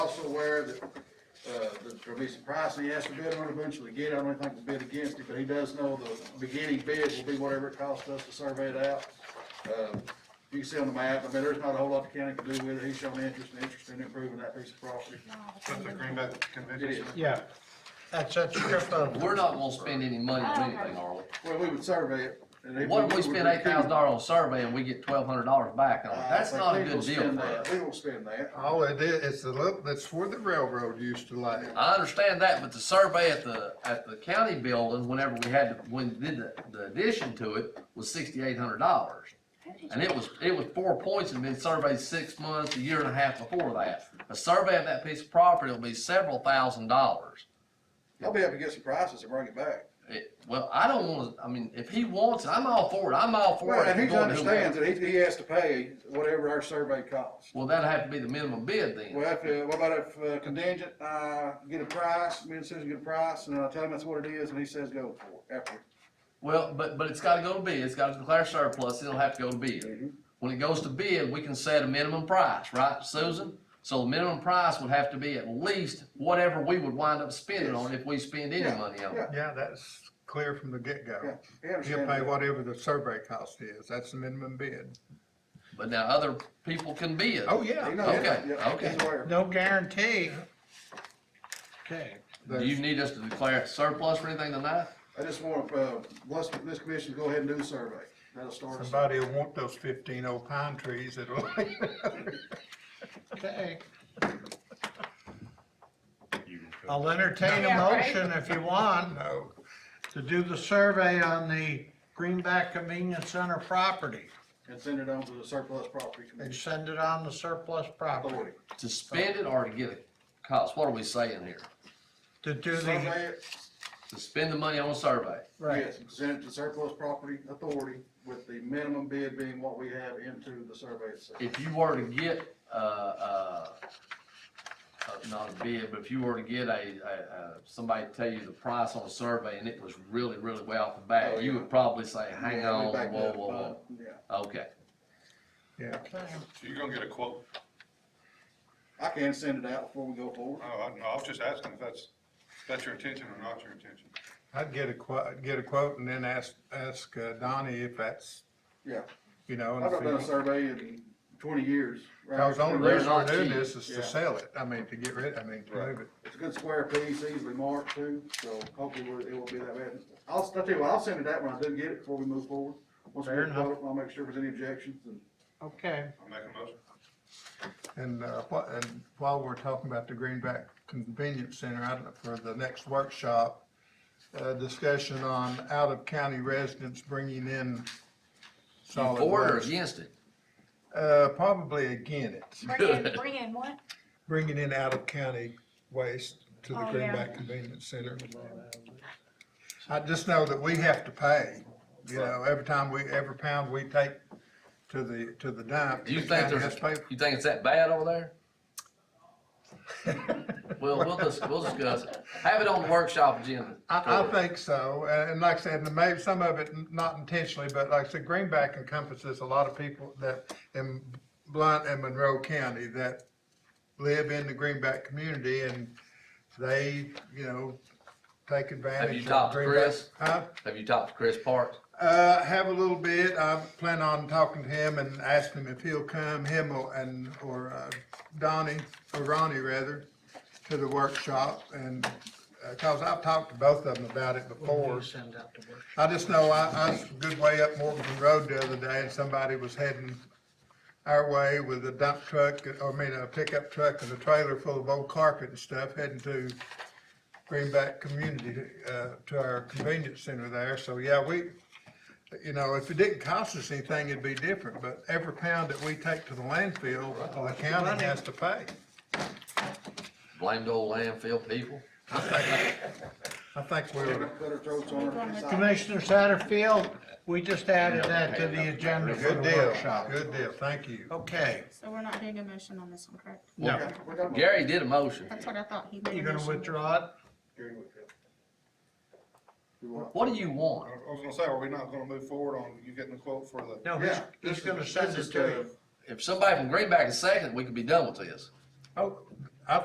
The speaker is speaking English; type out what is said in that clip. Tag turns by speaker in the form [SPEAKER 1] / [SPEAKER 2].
[SPEAKER 1] also aware that, uh, that there'll be some pricing he has to bid on eventually get, it. I don't think he'll bid against it, but he does know the beginning bid will be whatever it costs us to survey it out. Uh, You can see on the map, I mean, there's not a whole lot the county can do with it, he's shown interest, and interest in improving that piece of property.
[SPEAKER 2] That's the Greenback
[SPEAKER 1] It
[SPEAKER 2] Convention.
[SPEAKER 1] is,
[SPEAKER 3] Yeah. That's, that's stripped out.
[SPEAKER 4] We're not gonna spend any money on anything, are we?
[SPEAKER 1] well, we would survey it. and he
[SPEAKER 4] What if we
[SPEAKER 1] would-
[SPEAKER 4] spend eight thousand dollars on survey and we get twelve hundred dollars back on it?
[SPEAKER 1] I
[SPEAKER 4] That's
[SPEAKER 1] think
[SPEAKER 4] not a
[SPEAKER 1] we will
[SPEAKER 4] good deal
[SPEAKER 1] spend
[SPEAKER 4] for
[SPEAKER 1] that.
[SPEAKER 4] us.
[SPEAKER 1] We will spend that.
[SPEAKER 3] All Oh, it is, it's the, look- that's where the railroad used to lay.
[SPEAKER 4] I understand that, but the survey at the, at the county building, whenever we had, to- when we did the, the addition to it, was sixty-eight hundred dollars. And it was, it was four points and been surveyed six months, a year and a half before that. A survey of that piece of property will be several thousand dollars.
[SPEAKER 1] I'll be able to get some prices and bring it back.
[SPEAKER 4] It- Well, I don't wanna, I mean, if he wants, it, I'm all for it, I'm all for it.
[SPEAKER 1] Well, and he
[SPEAKER 4] Going to whoever.
[SPEAKER 1] understands that he, he has to pay whatever our survey costs.
[SPEAKER 4] Well, that'd have to be the minimum bid then.
[SPEAKER 1] Well, if, uh, what about if uh, contingent, uh, get a price, me and Susan get a price, and I tell him that's what it is, and he says go for it after.
[SPEAKER 4] Well, but, but it's gotta go to bid, it's gotta declare surplus, it'll have to go to bid.
[SPEAKER 1] Mhm.
[SPEAKER 4] When it goes to bid, we can set a minimum price, right, Susan? So the minimum price would have to be at least whatever we would wind up spending on it if we spend any
[SPEAKER 1] Yeah,
[SPEAKER 4] money on it.
[SPEAKER 1] yeah.
[SPEAKER 3] Yeah, that's clear from the
[SPEAKER 1] Yeah,
[SPEAKER 3] get-go.
[SPEAKER 1] he
[SPEAKER 3] You pay
[SPEAKER 1] understands.
[SPEAKER 3] whatever the survey cost is, that's the minimum bid.
[SPEAKER 4] But now other people can bid.
[SPEAKER 3] Oh,
[SPEAKER 1] He
[SPEAKER 3] yeah.
[SPEAKER 1] knows,
[SPEAKER 4] Okay,
[SPEAKER 1] yeah,
[SPEAKER 4] okay.
[SPEAKER 1] he's aware.
[SPEAKER 5] No guarantee. Okay.
[SPEAKER 4] Do you need us to declare it surplus or anything tonight?
[SPEAKER 1] I just want, uh, bless this commission, to go ahead and do the survey. That'll start us.
[SPEAKER 3] Somebody will want those fifteen old pine trees that'll.
[SPEAKER 5] Okay.
[SPEAKER 2] Oh,
[SPEAKER 5] I'll entertain a
[SPEAKER 6] Yeah, right.
[SPEAKER 5] motion if you want uh,
[SPEAKER 3] No,
[SPEAKER 5] to do the survey on the Greenback Convenience Center property
[SPEAKER 1] And send it on to the surplus property
[SPEAKER 5] and
[SPEAKER 1] commission
[SPEAKER 5] send it on the surplus property.
[SPEAKER 1] authority.
[SPEAKER 4] To spend it or to get a cost? What are we saying here?
[SPEAKER 5] To do the,
[SPEAKER 1] Survey it,
[SPEAKER 4] To spend the money on a survey?
[SPEAKER 5] right,
[SPEAKER 1] yes, and send it to surplus property authority with the minimum bid being what we have into the survey itself.
[SPEAKER 4] if you were to get, uh, uh, uh, not a bid, but if you were to get a, a, uh, somebody to tell you the price on a survey and it was really, really way off the
[SPEAKER 1] Oh,
[SPEAKER 4] bat,
[SPEAKER 1] yeah.
[SPEAKER 4] you would probably say, hang
[SPEAKER 1] Yeah, we
[SPEAKER 4] on, whoa,
[SPEAKER 1] backed up,
[SPEAKER 4] whoa,
[SPEAKER 1] but, Yeah,
[SPEAKER 4] whoa, okay.
[SPEAKER 3] yeah.
[SPEAKER 2] So you're gonna get a quote?
[SPEAKER 1] I can send it out before we go forward.
[SPEAKER 2] No, Oh, I, no, I was just asking if that's, if that's your intention or not your intention.
[SPEAKER 3] I'd get a quote, get a quote and then ask, ask uh, Donnie if that's,
[SPEAKER 1] Yeah,
[SPEAKER 3] you know. and
[SPEAKER 1] I've not
[SPEAKER 3] if
[SPEAKER 1] done a
[SPEAKER 3] he-
[SPEAKER 1] survey in twenty years. right?
[SPEAKER 3] Cause the only
[SPEAKER 4] They're
[SPEAKER 3] reason we're
[SPEAKER 4] not
[SPEAKER 3] doing
[SPEAKER 4] cheap.
[SPEAKER 3] this is
[SPEAKER 1] Yeah.
[SPEAKER 3] to sell it, I mean, to get rid, I mean, to
[SPEAKER 2] Right.
[SPEAKER 3] move it.
[SPEAKER 1] It's a good square piece, easily marked too, so hopefully we'll- it won't be that bad. I'll, I'll tell you what, I'll send it out when I do get it before we move forward. Once we
[SPEAKER 5] Fair
[SPEAKER 1] get it, I'll make sure if there's any objections and
[SPEAKER 5] okay.
[SPEAKER 2] I'll make a motion.
[SPEAKER 3] And, uh, what, and while we're talking about the Greenback Convenience Center, I don't know, for the next workshop, uh, discussion on out-of-county residents bringing in
[SPEAKER 4] You
[SPEAKER 3] solid
[SPEAKER 4] for it or
[SPEAKER 3] waste.
[SPEAKER 4] against it?
[SPEAKER 3] Uh, probably again it,
[SPEAKER 6] Bring in, bring in what?
[SPEAKER 3] bringing in out-of-county waste to the
[SPEAKER 6] Oh, yeah.
[SPEAKER 3] Greenback Convenience Center. I just know that we have to pay, you know, every time we, every pound we take to the, to the dump.
[SPEAKER 4] Do you
[SPEAKER 3] the
[SPEAKER 4] think
[SPEAKER 3] county
[SPEAKER 4] there's,
[SPEAKER 3] has to pay
[SPEAKER 4] a- you think it's that bad over there? Well, we'll dis we'll discuss it. Have it on the workshop agenda.
[SPEAKER 3] I, I think so, and and like I said, and maybe some of it not intentionally, but like I said, Greenback encompasses a lot of people that in Blunt and Monroe County that live in the Greenback community and they, you know, take advantage. of
[SPEAKER 4] talked to
[SPEAKER 3] Greenback.
[SPEAKER 4] Chris?
[SPEAKER 3] Huh?
[SPEAKER 4] Have you talked to Chris Parks?
[SPEAKER 3] Uh, have a little bit, I plan on talking to him and asking him if he'll come, him or, and, or uh, Donnie, or Ronnie rather, to the workshop and, uh, cause I've talked to both of them about it before.
[SPEAKER 5] Send out the work.
[SPEAKER 3] I just know I, I was a good way up Morganton Road the other day and somebody was heading our way with a dump truck, or I mean, a pickup truck and a trailer full of old carpet and stuff heading to Greenback Community, uh, to our convenience center there. So, yeah, we, you know, if it didn't cost us anything, it'd be different, but every pound that we take to the landfill, the county has to pay.
[SPEAKER 4] Blamed old landfill people?
[SPEAKER 3] I think we're,
[SPEAKER 1] put our throats on our side.
[SPEAKER 5] Commissioner Satterfield, we just added that to the agenda for
[SPEAKER 3] good
[SPEAKER 5] the
[SPEAKER 3] deal,
[SPEAKER 5] workshop.
[SPEAKER 3] good deal, thank you.
[SPEAKER 5] Okay.
[SPEAKER 6] So we're not doing a motion on this one, correct?
[SPEAKER 5] No.
[SPEAKER 1] We got a-
[SPEAKER 4] Gary did a motion.
[SPEAKER 6] That's what I thought. He made a
[SPEAKER 5] You're gonna
[SPEAKER 6] motion.
[SPEAKER 5] withdraw it?
[SPEAKER 1] Gary Whitfield. You want-
[SPEAKER 4] What do you want?
[SPEAKER 2] I was- I was gonna say, are we not gonna move forward on you getting a quote for the?
[SPEAKER 5] No, he's,
[SPEAKER 1] Yeah, this
[SPEAKER 5] he's
[SPEAKER 1] is-
[SPEAKER 5] gonna send
[SPEAKER 1] this
[SPEAKER 5] it
[SPEAKER 1] is
[SPEAKER 5] to you.
[SPEAKER 1] the-
[SPEAKER 4] If somebody from Greenback is second, we could be done with this.
[SPEAKER 3] Oh,